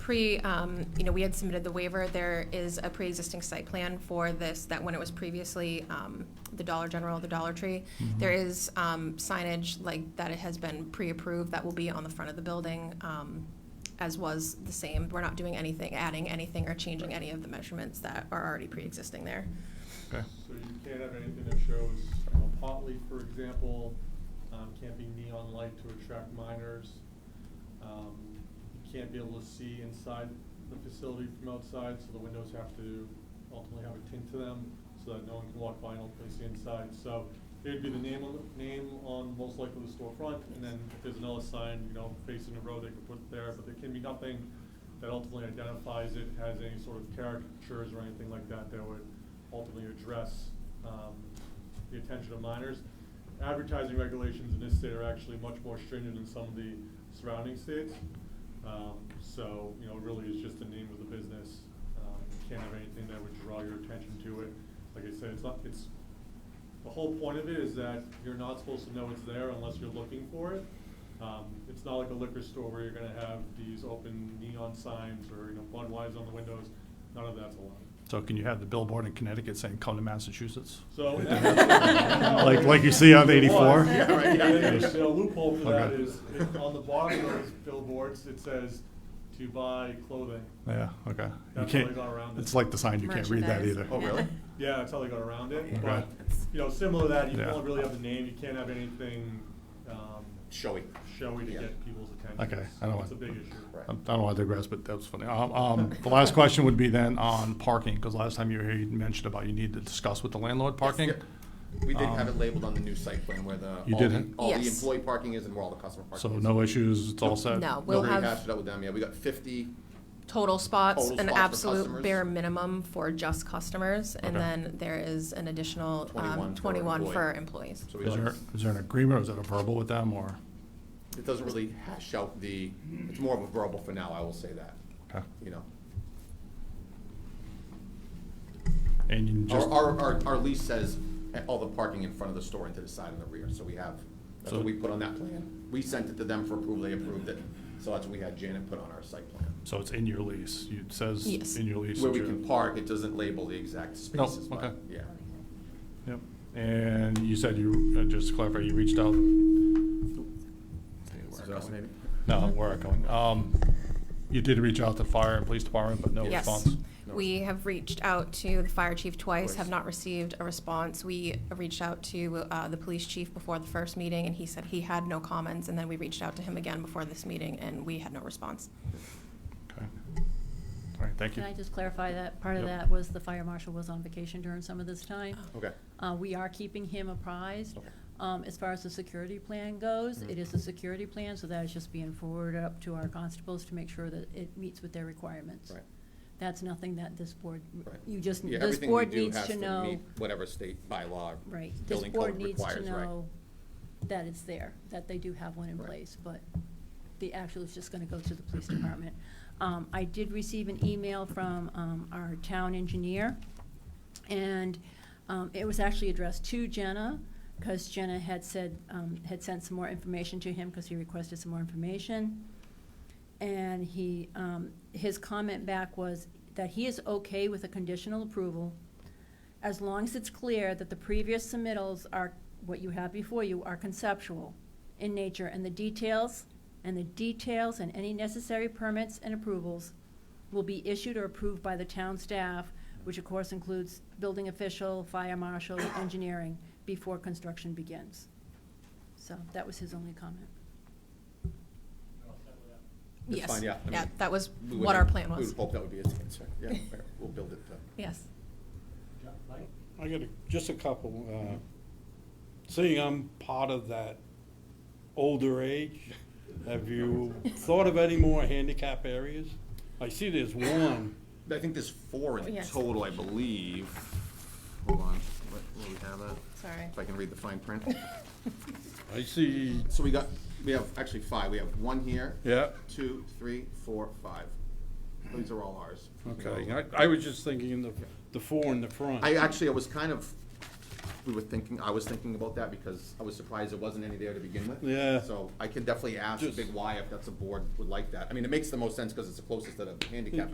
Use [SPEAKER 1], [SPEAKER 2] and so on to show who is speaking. [SPEAKER 1] pre, um, you know, we had submitted the waiver. There is a pre-existing site plan for this, that when it was previously um, the Dollar General, the Dollar Tree,
[SPEAKER 2] Mm-hmm.
[SPEAKER 1] there is um, signage like that it has been pre-approved that will be on the front of the building, um, as was the same. We're not doing anything, adding anything or changing any of the measurements that are already pre-existing there.
[SPEAKER 2] Okay.
[SPEAKER 3] So you can't have anything that shows, you know, Potley, for example, um, can't be neon light to attract minors. Um, you can't be able to see inside the facility from outside, so the windows have to ultimately have a tint to them, so that no one can walk by and ultimately see inside. So it'd be the name on, the- name on most likely the storefront, and then if there's another sign, you know, facing the road, they could put there, but there can be nothing that ultimately identifies it, has any sort of caricatures or anything like that that would ultimately address um, the attention of minors. Advertising regulations in this state are actually much more stringent than some of the surrounding states. Um, So, you know, it really is just the name of the business. Um, You Can't have anything that would draw your attention to it. Like I said, it's not, it's, the whole point of it is that you're not supposed to know it's there unless you're looking for it. Um, It's not like a liquor store where you're gonna have these open neon signs or, you know, Budweiser on the windows. None of that's allowed.
[SPEAKER 2] So can you have the billboard in Connecticut saying, come to Massachusetts?
[SPEAKER 3] So.
[SPEAKER 2] Like, like you see on eighty-four?
[SPEAKER 4] Yeah, right, yeah.
[SPEAKER 3] The loophole for that
[SPEAKER 2] Okay.
[SPEAKER 3] is, it- on the bottom of those billboards, it says to buy clothing.
[SPEAKER 2] Yeah, okay. You
[SPEAKER 3] That's how they
[SPEAKER 2] can't,
[SPEAKER 3] got around it.
[SPEAKER 2] it's like the sign, you can't read that either.
[SPEAKER 1] Merchandise.
[SPEAKER 4] Oh, really?
[SPEAKER 3] Yeah, that's how they got around
[SPEAKER 2] Okay.
[SPEAKER 3] it, but, you know, similar to that, you
[SPEAKER 2] Yeah.
[SPEAKER 3] don't really have the name, you can't have anything, um,
[SPEAKER 4] Showy.
[SPEAKER 3] showy to
[SPEAKER 4] Yeah.
[SPEAKER 3] get people's attention.
[SPEAKER 2] Okay,
[SPEAKER 3] It's-
[SPEAKER 2] I don't
[SPEAKER 3] It's a
[SPEAKER 2] want-
[SPEAKER 3] big issue.
[SPEAKER 4] Right.
[SPEAKER 2] I I don't want to digress, but that was funny. Um, um, The last question would be then on parking, because last time you were here, you mentioned about you need to discuss with the landlord parking.
[SPEAKER 4] Yep. We did have
[SPEAKER 2] Um,
[SPEAKER 4] it labeled on the new site plan where the.
[SPEAKER 2] You
[SPEAKER 4] all
[SPEAKER 2] did
[SPEAKER 4] the-
[SPEAKER 2] it?
[SPEAKER 4] All the
[SPEAKER 1] Yes.
[SPEAKER 4] employee parking is and where all the customer
[SPEAKER 2] So
[SPEAKER 4] parking is.
[SPEAKER 2] no issues, it's all set?
[SPEAKER 1] No,
[SPEAKER 4] We
[SPEAKER 1] we'll
[SPEAKER 4] already
[SPEAKER 1] have
[SPEAKER 4] hashed it out with them, yeah, we got fifty,
[SPEAKER 1] total spots,
[SPEAKER 4] Total
[SPEAKER 1] an
[SPEAKER 4] spots for
[SPEAKER 1] absolute
[SPEAKER 4] customers.
[SPEAKER 1] bare minimum for just customers, and
[SPEAKER 2] Okay.
[SPEAKER 1] then there is an additional um,
[SPEAKER 4] 21 for
[SPEAKER 1] twenty-one
[SPEAKER 4] employee.
[SPEAKER 1] for employees.
[SPEAKER 4] so we
[SPEAKER 2] Is
[SPEAKER 4] got,
[SPEAKER 2] there, is there an agreement, or is that a verbal with them, or?
[SPEAKER 4] it doesn't really hash out the, it's more of a verbal for now, I will say that,
[SPEAKER 2] okay.
[SPEAKER 4] you know.
[SPEAKER 2] And you
[SPEAKER 4] Our,
[SPEAKER 2] just,
[SPEAKER 4] our, our, our lease says all the parking in front of the store and to the side and the rear, so we have, that's
[SPEAKER 2] So-
[SPEAKER 4] what we put on that plan. We sent it to them for approval, they approved it, so that's what we had Janet put on our site plan.
[SPEAKER 2] so it's in your lease, You- it says
[SPEAKER 1] Yes.
[SPEAKER 2] in your lease.
[SPEAKER 4] Where
[SPEAKER 2] that
[SPEAKER 4] we
[SPEAKER 2] you-
[SPEAKER 4] can park, it doesn't label the exact spaces,
[SPEAKER 2] okay.
[SPEAKER 4] but, yeah.
[SPEAKER 2] Yep. And you said you, uh, just to clarify, you reached out?
[SPEAKER 4] Exhaust, maybe?
[SPEAKER 2] No,
[SPEAKER 1] Mm-hmm.
[SPEAKER 2] where are going? Um, You did reach out to fire and police department, but no
[SPEAKER 1] Yes.
[SPEAKER 2] response?
[SPEAKER 4] No.
[SPEAKER 1] We have reached out to the fire chief twice,
[SPEAKER 4] Twice.
[SPEAKER 1] have not received a response. We reached out to uh, the police chief before the first meeting, and he said he had no comments, and then we reached out to him again before this meeting, and we had no response.
[SPEAKER 2] Okay. All right, thank you.
[SPEAKER 5] Can I just clarify that part of
[SPEAKER 2] Yep.
[SPEAKER 5] that was the fire marshal was on vacation during some of this time?
[SPEAKER 4] Okay.
[SPEAKER 5] Uh, we are keeping him apprised.
[SPEAKER 4] Oh. Okay. Mm-hmm.
[SPEAKER 5] Um, as far as the security plan goes, it is a security plan, so that is just being forwarded up to our constables to make sure that it meets with their requirements.
[SPEAKER 4] Right.
[SPEAKER 5] That's nothing that this board,
[SPEAKER 4] Right.
[SPEAKER 5] you just,
[SPEAKER 4] Yeah,
[SPEAKER 5] this
[SPEAKER 4] everything we
[SPEAKER 5] board
[SPEAKER 4] do
[SPEAKER 5] needs
[SPEAKER 4] has
[SPEAKER 5] to
[SPEAKER 4] meet
[SPEAKER 5] know,
[SPEAKER 4] Whatever state bylaw.
[SPEAKER 5] right, this
[SPEAKER 4] building
[SPEAKER 5] board
[SPEAKER 4] code
[SPEAKER 5] needs to
[SPEAKER 4] requires, right.
[SPEAKER 5] know that it's there, that they do have one in
[SPEAKER 4] Right.
[SPEAKER 5] place, but the actual is just gonna go to the police department. Um, I did receive an email from, um, our town engineer, and, um, it was actually addressed to Jenna, cause Jenna had said, um, had sent some more information to him, cause he requested some more information. And he, um, his comment back was that he is okay with a conditional approval as long as it's clear that the previous submittals are, what you have before you are conceptual in nature, and the details, and the details and any necessary permits and approvals will be issued or approved by the town staff, which of course includes building official, fire marshal, engineering, before construction begins. So that was his only comment.
[SPEAKER 4] It's
[SPEAKER 1] Yes.
[SPEAKER 4] fine, yeah, I mean,
[SPEAKER 1] that was
[SPEAKER 4] We would-
[SPEAKER 1] what our plan
[SPEAKER 4] We
[SPEAKER 1] was.
[SPEAKER 4] would hope that would be its answer, yeah, we'll build it to.
[SPEAKER 1] Yes.
[SPEAKER 6] I got a, just a couple. Uh, seeing I'm part of that older age, have you thought of any more handicap areas? I see there's one.
[SPEAKER 4] I think there's four in
[SPEAKER 1] Oh, Yes.
[SPEAKER 4] total, I believe. Hold on, what, what do we have that?
[SPEAKER 1] Sorry.
[SPEAKER 4] If I can read the fine print.
[SPEAKER 6] I see.
[SPEAKER 4] So we got, we have actually five, we have one here.
[SPEAKER 6] Yeah.
[SPEAKER 4] Two, three, four, five. These are all ours.
[SPEAKER 6] Okay. I, I was just thinking the the four in the front.
[SPEAKER 4] I actually, I was kind of we were thinking, I was thinking about that because I was surprised there wasn't any there to begin with.
[SPEAKER 6] Yeah.
[SPEAKER 4] So I can definitely ask
[SPEAKER 6] Just-
[SPEAKER 4] Big Y if that's a board would like that. I mean, it makes the most sense because it's the closest to the handicap